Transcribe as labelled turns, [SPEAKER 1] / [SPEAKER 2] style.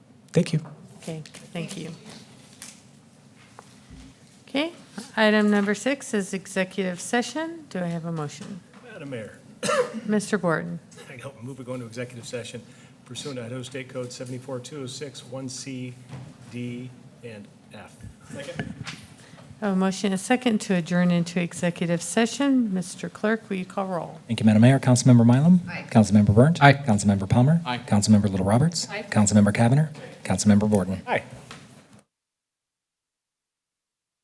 [SPEAKER 1] Thank you.
[SPEAKER 2] Okay, thank you. Okay, item number six is executive session. Do I have a motion?
[SPEAKER 3] Madam Mayor,
[SPEAKER 2] Mr. Borton,
[SPEAKER 3] I don't move we go into executive session pursuant to Idaho State Code 74206, 1C, D, and F.
[SPEAKER 2] a motion, a second to adjourn into executive session. Mr. Clerk, will you call roll?
[SPEAKER 1] Thank you, Madam Mayor. Councilmember Mylum? Aye. Councilmember Burnt? Aye. Councilmember Palmer? Aye. Councilmember Little Roberts? Aye. Councilmember Cavanagh? Councilmember Borden?
[SPEAKER 3] Aye.